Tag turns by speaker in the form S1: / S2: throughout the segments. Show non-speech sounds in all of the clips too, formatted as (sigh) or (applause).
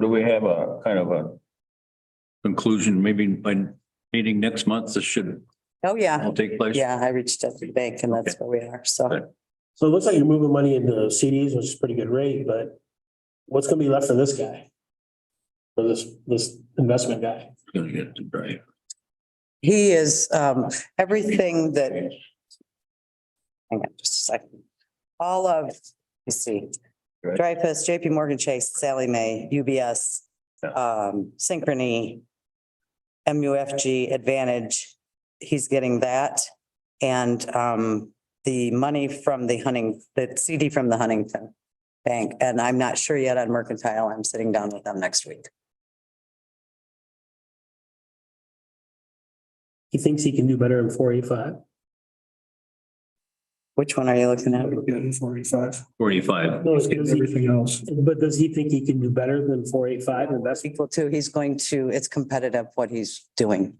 S1: Do we have a kind of a conclusion, maybe by meeting next month, this should
S2: Oh, yeah.
S1: all take place?
S2: Yeah, I reached out to the bank and that's where we are.
S1: Okay.
S2: So
S3: So it looks like you're moving money into CDs, which is pretty good rate, but what's gonna be left for this guy? For this, this investment guy?
S1: Gonna get to Brian.
S2: he is, um, everything that. Hang on just a second. All of, you see,
S1: Right.
S2: Dreyfus, JP Morgan Chase, Sally May, UBS,
S1: Yeah.
S2: um, Synchrony, MUFG Advantage. He's getting that. And, um, the money from the hunting, the CD from the Huntington Bank. And I'm not sure yet on Mercantile. I'm sitting down with them next week.
S3: He thinks he can do better in four eighty-five.
S2: Which one are you looking at?
S3: Four eighty-five.
S1: Forty-five.
S3: No, it's because everything else. But does he think he can do better than four eighty-five investment?
S2: equal to, he's going to, it's competitive what he's doing.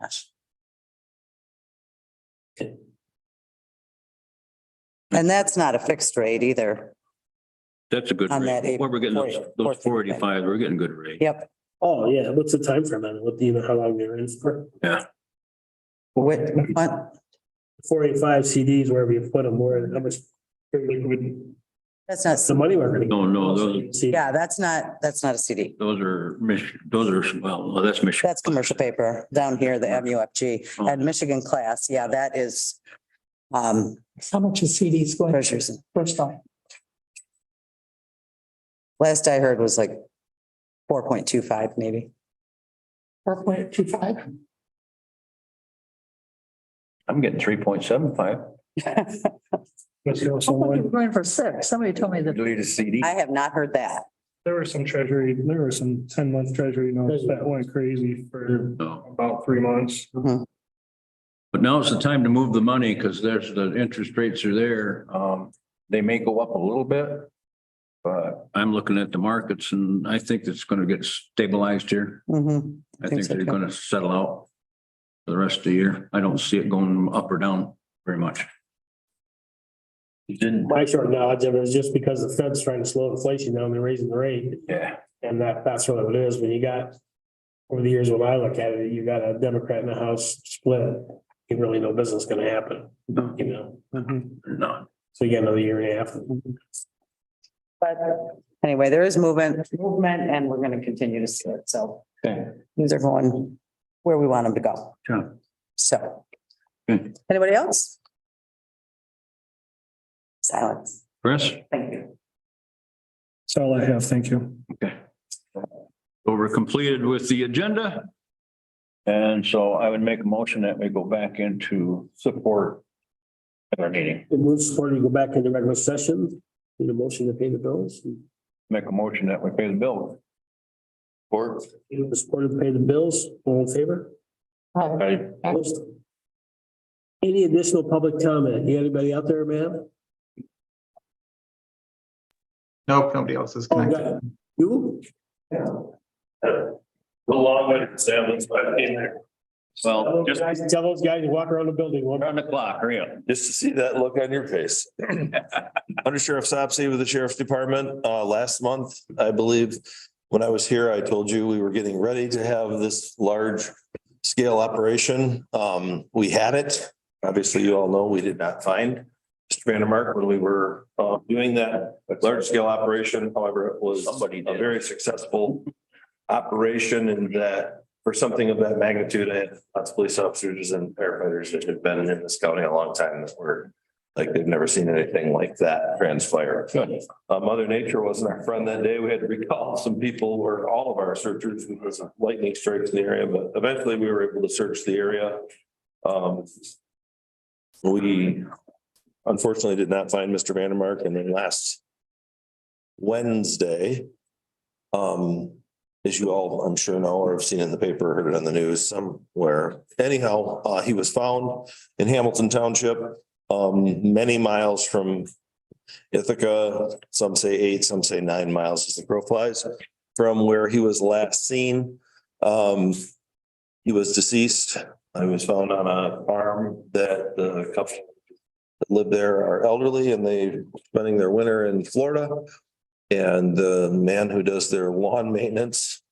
S2: And that's not a fixed rate either.
S1: That's a good
S2: On that
S1: rate. Where we're getting those,
S2: April
S1: those
S2: 4th,
S1: forty-five, we're getting good rate.
S2: Yep.
S3: Oh, yeah, what's the time frame on it? What, do you know how long they're in for?
S2: What, what,
S3: Four eighty-five CDs, wherever you put them, where, how much? The
S2: that's not,
S3: money we're gonna.
S1: No, no, those-
S3: See,
S2: yeah, that's not, that's not a CD.
S1: Those are Mich, those are, well, no, that's Michigan.
S2: That's commercial paper down here, the MUFG and Michigan class. Yeah, that is, um,
S4: How much is CDs going to
S2: treasures.
S4: first time?
S2: Last I heard was like four point two five maybe. (laughs)
S4: Four point two five?
S1: I'm getting three point seven five.
S5: Was there also one,
S4: Going for six. Somebody told me that.
S1: Delete a CD.
S2: I have not heard that.
S5: there were some treasury, there were some ten month treasury notes that went crazy for
S1: No.
S5: about three months.
S1: But now's the time to move the money because there's, the interest rates are there. Um, they may go up a little bit. But I'm looking at the markets and I think it's gonna get stabilized here.
S2: Mhm.
S1: I
S2: Think
S1: think
S2: so,
S1: they're
S2: too.
S1: gonna settle out for the rest of the year. I don't see it going up or down very much. Didn't,
S3: My short knowledge of it is just because the Fed's trying to slow inflation down, they're raising the rate.
S1: yeah.
S3: And that, that's really what it is, when you got, over the years, when I look at it, you got a Democrat in the House split, you really know business gonna happen,
S1: No,
S3: you know?
S1: no.
S3: So you got another year and a half.
S2: But anyway, there is movement, movement, and we're gonna continue to see it, so.
S1: Okay.
S2: These are going where we want them to go.
S1: Sure.
S2: So.
S1: Good.
S2: Anybody else? Silence.
S1: Chris?
S2: Thank you.
S5: That's all I have. Thank you.
S1: Okay. So we're completed with the agenda. And so I would make a motion that we go back into support at our meeting.
S3: It moves forward, we go back into regular session, need a motion to pay the bills,
S1: Make a motion that we pay the bill. Support.
S3: you know, support to pay the bills, all in favor?
S1: I-
S3: Opposed? Any additional public comment, you got anybody out there, ma'am?
S6: Nope, nobody else is
S3: Oh, you
S6: connected.
S3: got- You?
S1: Well,
S3: Tell those
S1: just
S3: guys- Tell those guys to walk around the building one
S1: around the clock, hurry up.
S7: Just to see that look on your face.
S1: (laughs)
S7: Under Sheriff Sopsey with the Sheriff's Department, uh, last month, I believe, when I was here, I told you we were getting ready to have this large scale operation. Um, we had it. Obviously, you all know we did not find Mr. Vandermark when we were, uh, doing that large scale operation. However, it was
S1: Somebody
S7: a
S1: did.
S7: very successful operation in that for something of that magnitude, I had lots of police officers and firefighters that have been in this county a long time that were like, they've never seen anything like that transpire. Uh, Mother Nature wasn't our friend that day. We had to recall (laughs) some people or all of our searchers. There was a lightning strikes in the area, but eventually we were able to search the area. Um, we unfortunately did not find Mr. Vandermark and then last Wednesday, um, as you all, I'm sure know or have seen in the paper, heard it on the news somewhere. Anyhow, uh, he was found in Hamilton Township, um, many miles from Ithaca, some say eight, some say nine miles as the crow flies from where he was last seen. Um, he was deceased. I was found on a farm that the couple that live there are elderly and they spending their winter in Florida. And the man who does their lawn maintenance